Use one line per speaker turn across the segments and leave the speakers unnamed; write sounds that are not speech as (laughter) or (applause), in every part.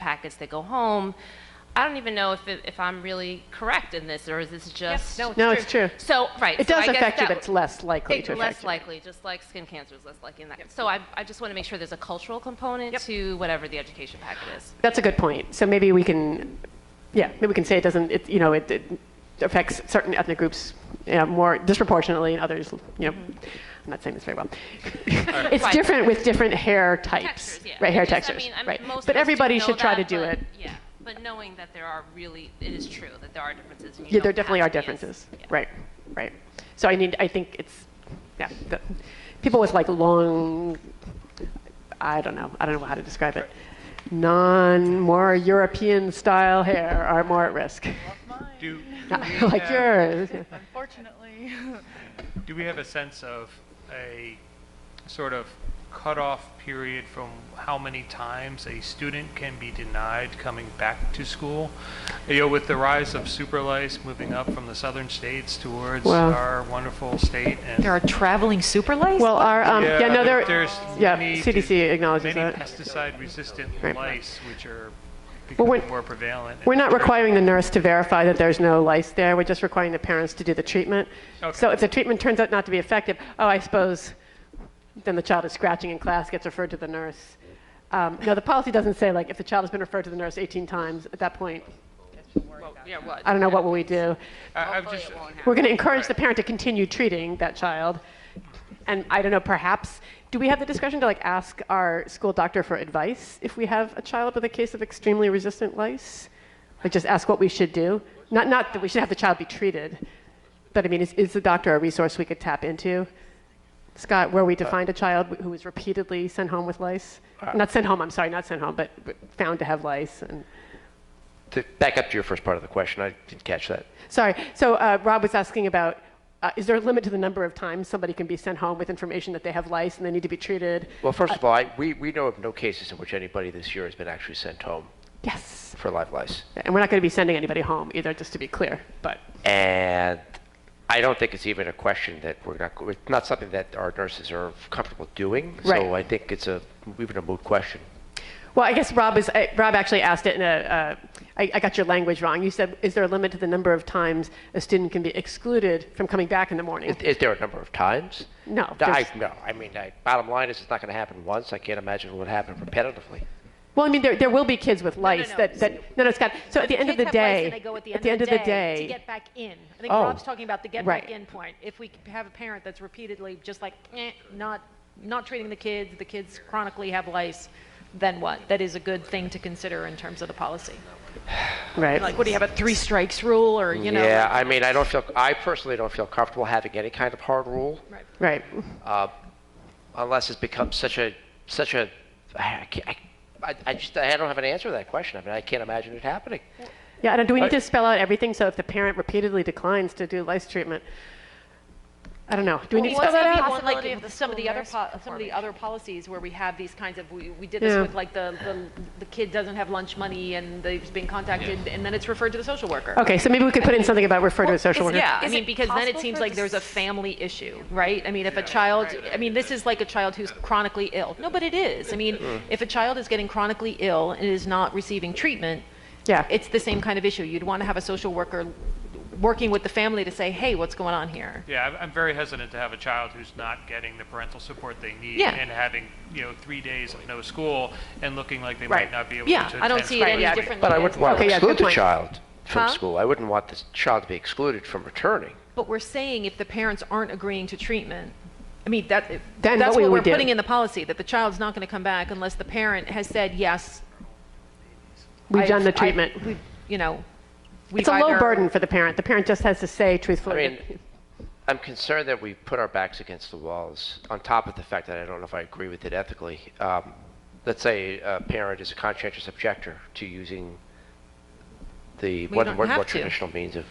packets that go home. I don't even know if, it- if I'm really correct in this, or is this just?
no,
No, it's true.
So, right.
It
so
does
I guess
affect you,
that
but it's
w-
less likely
it's
to
less
affect you.
likely, just like skin cancer is less likely. In that. So I, I just want to make sure there's a cultural component to whatever the education packet is.
That's a good point. So maybe we can, yeah, maybe we can say it doesn't, it, you know, it, it affects certain ethnic groups you know, more disproportionately and others, you know, I'm not saying this very well. it's
Right.
different with different hair types,
Textures, yeah.
right? Hair
Just,
textures,
I mean, I mean,
right?
most
but
of us do
everybody
know
should try
that,
to do
but-
it.
Yeah, but knowing that there are really, it is true that there are differences. and you
Yeah, there
don't have
definitely
to
are
be as-
differences,
yeah.
right? Right. So I need, I think it's, yeah, the, people with like long, I don't know, I don't know how to describe it. Non, more European style hair are more at risk.
Do,
(laughs) Not like yours.
Unfortunately.
do we have a sense of a sort of cutoff period from how many times a student can be denied coming back to school? You know, with the rise of superlice moving up from the southern states towards
Wow.
our wonderful state and
There are traveling super lice?
Well, our, um, yeah, no, there,
there's
yeah,
many-
CDC acknowledges
many
that.
pesticide-resistant
Right.
lice which are
Well, we're-
becoming more prevalent.
We're not requiring the nurse to verify that there's no lice there. We're just requiring the parents to do the treatment.
Okay.
So if the treatment turns out not to be effective, oh, I suppose then the child is scratching in class, gets referred to the nurse. Um, no, the policy doesn't say like if the child has been referred to the nurse 18 times at that point. I don't know what will we do.
I- I've just,
We're going to encourage the parent to continue treating that child. And I don't know, perhaps, do we have the discretion to like ask our school doctor for advice if we have a child with a case of extremely resistant lice? Like just ask what we should do? Not, not that we should have the child be treated, but I mean, is, is the doctor a resource we could tap into? Scott, were we to find a child who was repeatedly sent home with lice? Not sent home, I'm sorry, not sent home, but but found to have lice and.
To back up to your first part of the question, I didn't catch that.
Sorry. So uh, Rob was asking about uh, is there a limit to the number of times somebody can be sent home with information that they have lice and they need to be treated?
Well, first of all, I, we, we know of no cases in which anybody this year has been actually sent home
Yes.
for live lice.
And we're not going to be sending anybody home either, just to be clear. But
And I don't think it's even a question that we're not, it's not something that our nurses are comfortable doing.
Right.
So I think it's a, even a moot question.
well, I guess Rob is. Uh, Rob actually asked it in a. Uh, I, I got your language wrong. You said, "Is there a limit to the number of times a student can be excluded from coming back in the morning?"
Is, is there a number of times?
No,
I,
just-
no, I mean, I, bottom line is it's not going to happen once. I can't imagine it would happen repetitively.
Well, I mean, there, there will be kids with lice
no.
that, that. No, no, Scott. So at the end of the day,
They go at the end of the day to get back in. I think
Oh.
Rob's talking about the get
Right.
back in point. If we c- have a parent that's repeatedly just like, eh, not, not treating the kids, the kids chronically have lice, then what? That is a good thing to consider in terms of the policy.
right.
Like, what do you have, a three strikes rule or, you know?
yeah,
like-
I mean, I don't feel, I personally don't feel comfortable having any kind of hard rule.
Right.
Right.
unless it's become such a such a I, can't- I, I- I just I don't have an answer to that question. I mean, I can't imagine it happening.
Yeah, and do we need to spell out everything? So if the parent repeatedly declines to do lice treatment, I don't know. Do we need to
Well,
spell
what's
that
the
out?
possibility
Possibility
of
of the
some of
school
the other
nurse
po- some of the other policies where we have these kinds of we, we did this
Yeah.
with like the, the the kid doesn't have lunch money and they've been contacted and then it's referred to the social worker.
Okay, so maybe we could put in something about refer to a social worker.
Yeah, I
Is
mean
it
because then it
possible
seems
for
like
the
there's a family issue, right? I mean if a child I mean this is like a child who's chronically ill. No, but it is. I mean
Mm.
if a child is getting chronically ill and is not receiving treatment,
Yeah.
it's the same kind of issue. You'd want to have a social worker working with the family to say, "Hey, what's going on here?"
Yeah, I'm- I'm very hesitant to have a child who's not getting the parental support they need
Yeah.
and having, you know, three days of no school and looking like they
Right.
might not be able
Yeah,
to.
I don't
attend
see it
school.
any differently.
But I
as-
wouldn't want
Okay,
to
yeah, good
exclude the
point.
child from
Huh?
school. I wouldn't want the child to be excluded from returning.
But we're saying if the parents aren't agreeing to treatment, I mean, that,
Then
that's
what we
what
would
we're
do.
putting in the policy, that the child's not going to come back unless the parent has said, yes.
We've
I've-
done the
I've-
treatment.
we've, You know. we've
It's a low
either-
burden for the parent. The parent just has to say
I
truthfully.
mean, I'm concerned that we put our backs against the walls. On top of the fact that I don't know if I agree with it ethically. Um, let's say a parent is a conscientious objector to using the
We
one,
don't
one more
have to.
traditional means of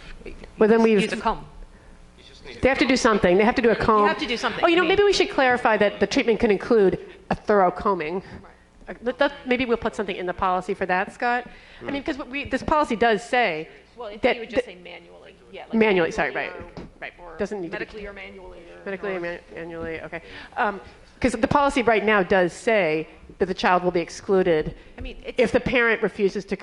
well, then we've,
Use a comb.
they have to do something. They have to do a comb.
have to do something.
Oh, you know,
I mean-
maybe we should clarify that the treatment can include a thorough combing. Uh, let- let- maybe we'll put something in the policy for that, Scott.
Hmm.
I mean, because we, this policy does say
Well, if
that-
you would
that-
just say manually, yeah. like
Manually, sorry,
manually
right,
or-
right.
or
Doesn't need to be-
Medically or manually. or-
medically, manu- annually, okay. Um, Because the policy right now does say that the child will be excluded
I mean, it's-
if the parent refuses to